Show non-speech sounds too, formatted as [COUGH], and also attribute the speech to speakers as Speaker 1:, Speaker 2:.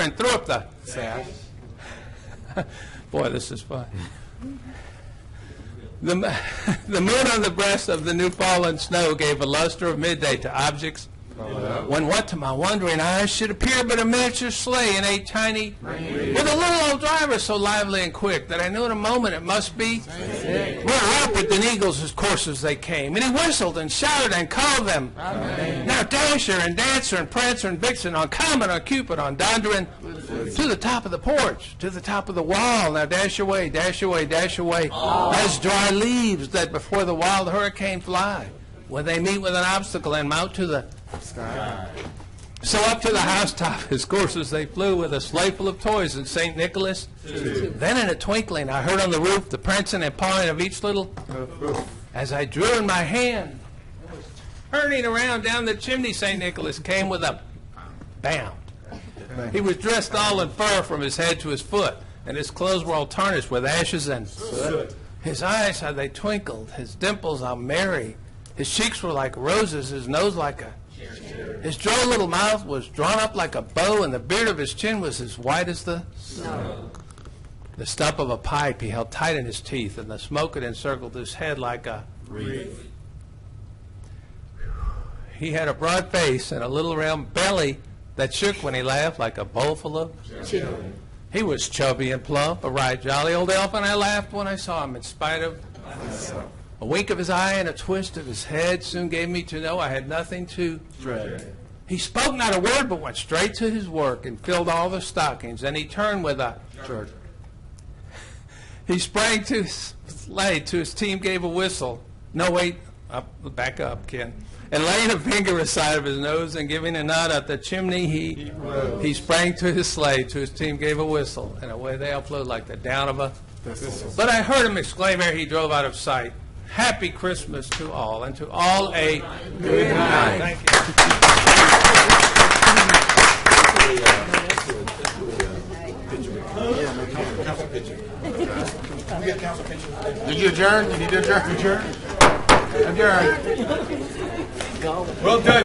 Speaker 1: and threw up the sash. [LAUGHS] Boy, this is fun. The, m- [LAUGHS] the moon on the breast of the new fallen snow gave a luster of midday to objects. When what to my wondering eyes should appear but a miniature sleigh and a tiny, with a little old driver so lively and quick that I knew in a moment it must be more rapid than eagles as course as they came. And he whistled and shouted and called them. Now Dasher and Dancer and Prancer and Vixen on Comet on Cupid on Dondering to the top of the porch, to the top of the wall. Now dash away, dash away, dash away as dry leaves that before the wild hurricane fly when they meet with an obstacle and mount to the so up to the housetop, his courses they flew with a sleigh full of toys and St. Nicholas. Then in a twinkling, I heard on the roof the prancing and pawing of each little. As I drew in my hand, and was turning around down the chimney, St. Nicholas came with a bound. He was dressed all in fur from his head to his foot, and his clothes were all tarnished with ashes and his eyes, how they twinkled, his dimples, how merry. His cheeks were like roses, his nose like a his droll little mouth was drawn up like a bow, and the beard of his chin was as white as the snow. The stump of a pipe he held tight in his teeth, and the smoke had encircled his head like a wreath. He had a broad face and a little round belly that shook when he laughed like a bowl full of. He was chubby and plump, a right jolly old elf, and I laughed when I saw him, in spite of. A wink of his eye and a twist of his head soon gave me to know I had nothing to he spoke not a word, but went straight to his work and filled all the stockings. And he turned with a He sprang to his sleigh, to his team, gave a whistle. No, wait, up, back up, Ken. And laying a finger aside of his nose and giving a nod up the chimney, he he, sprang to his sleigh, to his team, gave a whistle, and away they all flew like the down of a. But I heard him exclaim ere he drove out of sight, "Happy Christmas to all, and to all a good night." Thank you.
Speaker 2: Did you adjourn? Did you adjourn? Adjourn. Adjourn.